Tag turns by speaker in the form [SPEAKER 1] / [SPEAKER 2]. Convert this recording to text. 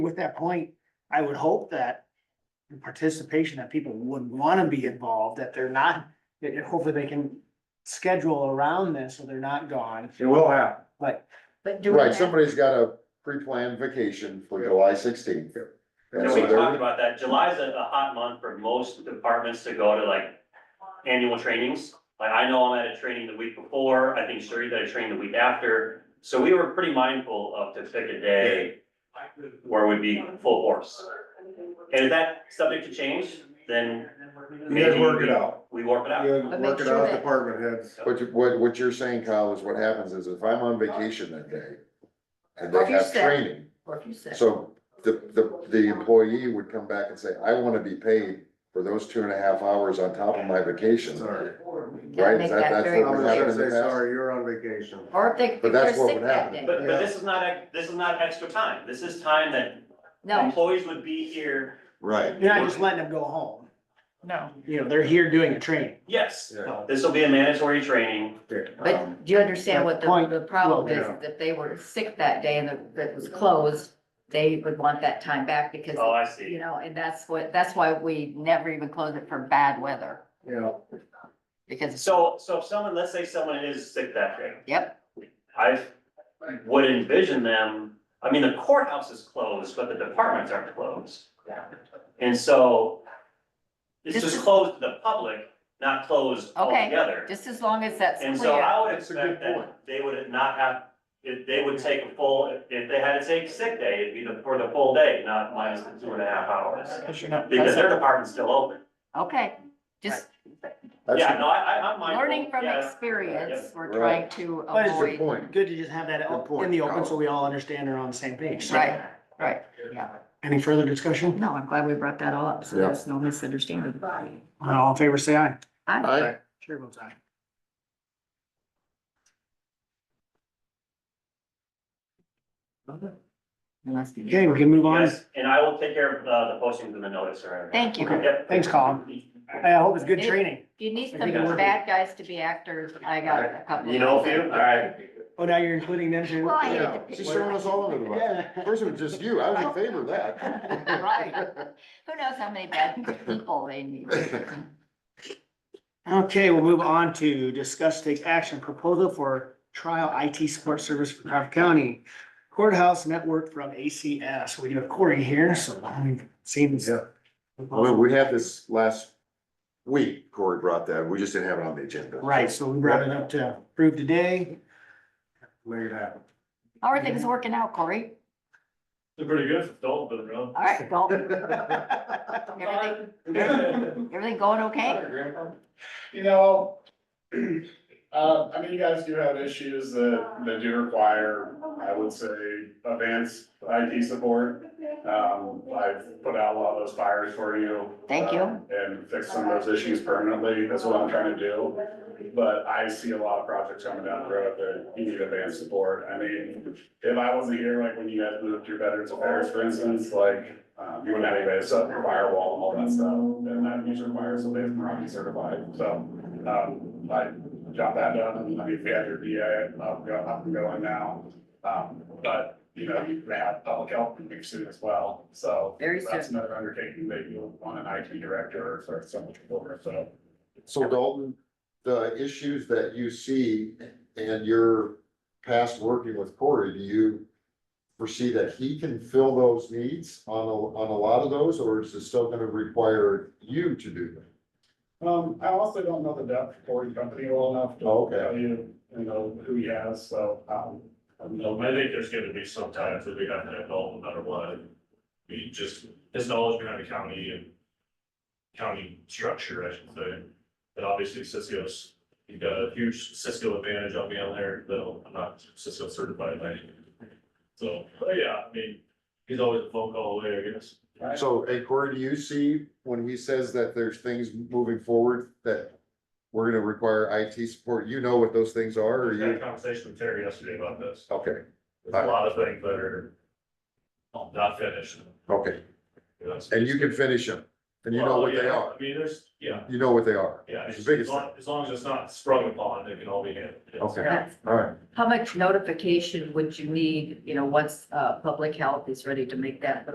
[SPEAKER 1] with that point, I would hope that the participation that people would wanna be involved, that they're not, that hopefully they can schedule around this, so they're not gone,
[SPEAKER 2] It will happen.
[SPEAKER 1] but
[SPEAKER 3] But do we
[SPEAKER 4] Right,
[SPEAKER 3] have,
[SPEAKER 4] somebody's got a pre-planned vacation for July sixteenth.
[SPEAKER 5] And we talked about that, July's a, a hot month for most departments to go to like annual trainings. Like I know I'm at a training the week before, I think Sherry's at a training the week after, so we were pretty mindful of to pick a day where we'd be full force. And if that subject to change, then
[SPEAKER 2] You guys work it out.
[SPEAKER 5] we work it out.
[SPEAKER 2] You
[SPEAKER 3] But
[SPEAKER 2] guys
[SPEAKER 3] make
[SPEAKER 2] work it
[SPEAKER 3] sure
[SPEAKER 2] out,
[SPEAKER 3] that-
[SPEAKER 2] department heads.
[SPEAKER 4] What you, what, what you're saying, Kyle, is what happens is if I'm on vacation that day and they
[SPEAKER 3] Like you
[SPEAKER 4] have
[SPEAKER 3] said.
[SPEAKER 4] training,
[SPEAKER 3] what you said.
[SPEAKER 4] so the, the, the employee would come back and say, I wanna be paid for those two and a half hours on top of my vacation.
[SPEAKER 2] Sorry.
[SPEAKER 4] Right,
[SPEAKER 3] Make
[SPEAKER 4] is that-
[SPEAKER 3] that
[SPEAKER 4] that's
[SPEAKER 3] very
[SPEAKER 4] what
[SPEAKER 2] I'm
[SPEAKER 4] would
[SPEAKER 3] clear.
[SPEAKER 4] happen
[SPEAKER 2] gonna
[SPEAKER 4] in the
[SPEAKER 2] say,
[SPEAKER 4] past?
[SPEAKER 2] sorry, you're on vacation.
[SPEAKER 3] Or if they, if
[SPEAKER 4] But
[SPEAKER 3] they're
[SPEAKER 4] that's what
[SPEAKER 3] sick
[SPEAKER 4] would
[SPEAKER 3] that
[SPEAKER 4] happen.
[SPEAKER 3] day.
[SPEAKER 5] But, but this is not, ex- this is not extra time, this is time that
[SPEAKER 3] No,
[SPEAKER 5] employees would be here,
[SPEAKER 4] Right,
[SPEAKER 1] you're not just letting them go home. No. You know, they're here doing a training.
[SPEAKER 5] yes,
[SPEAKER 1] so.
[SPEAKER 5] this will be a mandatory training.
[SPEAKER 2] Um,
[SPEAKER 3] but do you understand what
[SPEAKER 1] Point
[SPEAKER 3] the, the problem
[SPEAKER 1] well,
[SPEAKER 3] is?
[SPEAKER 2] yeah.
[SPEAKER 3] That they were sick that day and that- that was closed, they would want that time back because,
[SPEAKER 5] Oh, I see.
[SPEAKER 3] you know, and that's what, that's why we never even close it for bad weather.
[SPEAKER 2] Yeah,
[SPEAKER 3] Because,
[SPEAKER 5] So, so if someone, let's say someone is sick that day,
[SPEAKER 3] yep,
[SPEAKER 5] I would envision them, I mean, the courthouse is closed, but the departments aren't closed. And so it's
[SPEAKER 3] This
[SPEAKER 5] just
[SPEAKER 3] is-
[SPEAKER 5] closed to the public, not closed
[SPEAKER 3] Okay,
[SPEAKER 5] altogether.
[SPEAKER 3] just as long as that's
[SPEAKER 5] And so
[SPEAKER 3] clear.
[SPEAKER 5] I would
[SPEAKER 2] That's a good
[SPEAKER 5] expect that
[SPEAKER 2] point.
[SPEAKER 5] they would not have, if they would take a full, if- if they had to take sick day, it'd be the, for the full day, not minus the two and a half hours.
[SPEAKER 1] Because you're not
[SPEAKER 5] Because their
[SPEAKER 1] present.
[SPEAKER 5] department's still open.
[SPEAKER 3] Okay, just
[SPEAKER 5] Yeah,
[SPEAKER 4] that's
[SPEAKER 5] no, I, I- I'm mindful.
[SPEAKER 3] learning from
[SPEAKER 5] Yeah.
[SPEAKER 3] experience, we're trying
[SPEAKER 4] Right.
[SPEAKER 3] to
[SPEAKER 1] But it's
[SPEAKER 4] a good
[SPEAKER 3] avoid,
[SPEAKER 4] point.
[SPEAKER 1] Good to just have that out in the open, so we all understand and are on the same page. So,
[SPEAKER 3] right, right, yeah.
[SPEAKER 1] Any further discussion?
[SPEAKER 3] No, I'm glad we brought that all up, so
[SPEAKER 4] Yeah.
[SPEAKER 3] there's no misunderstanding.
[SPEAKER 1] Uh, All in favor, say aye.
[SPEAKER 3] Hi.
[SPEAKER 4] I,
[SPEAKER 1] Sure votes aye. Okay, we can move on.
[SPEAKER 5] Yes, and I will take care of uh, the postings and the notice or.
[SPEAKER 3] Thank you.
[SPEAKER 5] Yep.
[SPEAKER 1] Thanks, Colin. I hope it's good
[SPEAKER 3] Any-
[SPEAKER 1] training.
[SPEAKER 3] If you need
[SPEAKER 1] I
[SPEAKER 3] some
[SPEAKER 1] think I'm-
[SPEAKER 3] bad guys to be actors, I got a couple.
[SPEAKER 5] You know a few? All right.
[SPEAKER 1] Oh, now you're including them too?
[SPEAKER 3] Well, I hated
[SPEAKER 4] yeah,
[SPEAKER 3] to pick
[SPEAKER 4] she's
[SPEAKER 3] one.
[SPEAKER 4] throwing us all under the bus.
[SPEAKER 1] Yeah.
[SPEAKER 4] First it was just you, I was in favor of that.
[SPEAKER 3] Right. Who knows how many bad people they need.
[SPEAKER 1] Okay, we'll move on to discuss take action proposal for trial IT support service for Crawford County courthouse network from ACS. We have Corey here, so it seems.
[SPEAKER 4] Yeah. Well, we had this last week, Corey brought that, we just didn't have it on the agenda.
[SPEAKER 1] Right, so we brought it up to approve today.
[SPEAKER 2] make it happen.
[SPEAKER 3] How are things working out, Corey?
[SPEAKER 5] They're pretty good, it's dull, but they're
[SPEAKER 3] All right, go- everything, everything going okay?
[SPEAKER 6] You know, uh, I mean, you guys do have issues that, that do require, I would say, advanced IT support. Um, I've put out a lot of those fires for you.
[SPEAKER 3] Thank you.
[SPEAKER 6] uh, And fixed some of those issues permanently, that's what I'm trying to do. But I see a lot of projects coming down the road that you need advanced support. I mean, if I wasn't here, like when you guys moved your veterans affairs, for instance, like, um, you wouldn't have anybody to set up your firewall and all that stuff. And that usually requires somebody from Rocky certified, so, um, I got that done. I mean, if you have your uh, VA, up, go, up and going now. Um, but, you know, you have public health pretty soon as well, so.
[SPEAKER 3] Very
[SPEAKER 6] That's another undertaking that you'll want an IT director or someone to over, so.
[SPEAKER 4] So Dalton, the issues that you see and your past working with Corey, do you foresee that he can fill those needs on a, on a lot of those, or is it still gonna require you to do them?
[SPEAKER 6] Um, I also don't know the depth of Ford company well enough to
[SPEAKER 4] Oh, Okay.
[SPEAKER 6] tell you, you know, who he has, so, um.
[SPEAKER 7] No, I think there's gonna be some times that we have to involve no matter what. We just, his knowledge behind the county and county structure, I should say. But obviously Cisco's, you've got a huge Cisco advantage on being there, though I'm not Cisco certified by any. So, but yeah, I mean, he's always a phone call away, I guess.
[SPEAKER 4] So, hey Corey, do you see when he says that there's things moving forward that we're gonna require IT support, you know what those things are, or
[SPEAKER 7] We had a
[SPEAKER 4] you?
[SPEAKER 7] conversation with Terry yesterday about this.
[SPEAKER 4] Okay,
[SPEAKER 7] There's a lot of things that are not finished.
[SPEAKER 4] okay,
[SPEAKER 7] you know, so-
[SPEAKER 4] and you can finish them, and you know what they
[SPEAKER 7] Well, yeah,
[SPEAKER 4] are,
[SPEAKER 7] I mean, there's, yeah,
[SPEAKER 4] you know what they are,
[SPEAKER 7] yeah,
[SPEAKER 4] It's
[SPEAKER 7] as
[SPEAKER 4] the biggest
[SPEAKER 7] long, as long as it's not sprung upon, it can all be handled. yes.
[SPEAKER 4] Okay.
[SPEAKER 3] That's-
[SPEAKER 4] all right.
[SPEAKER 3] How much notification would you need, you know, once, uh, public health is ready to make that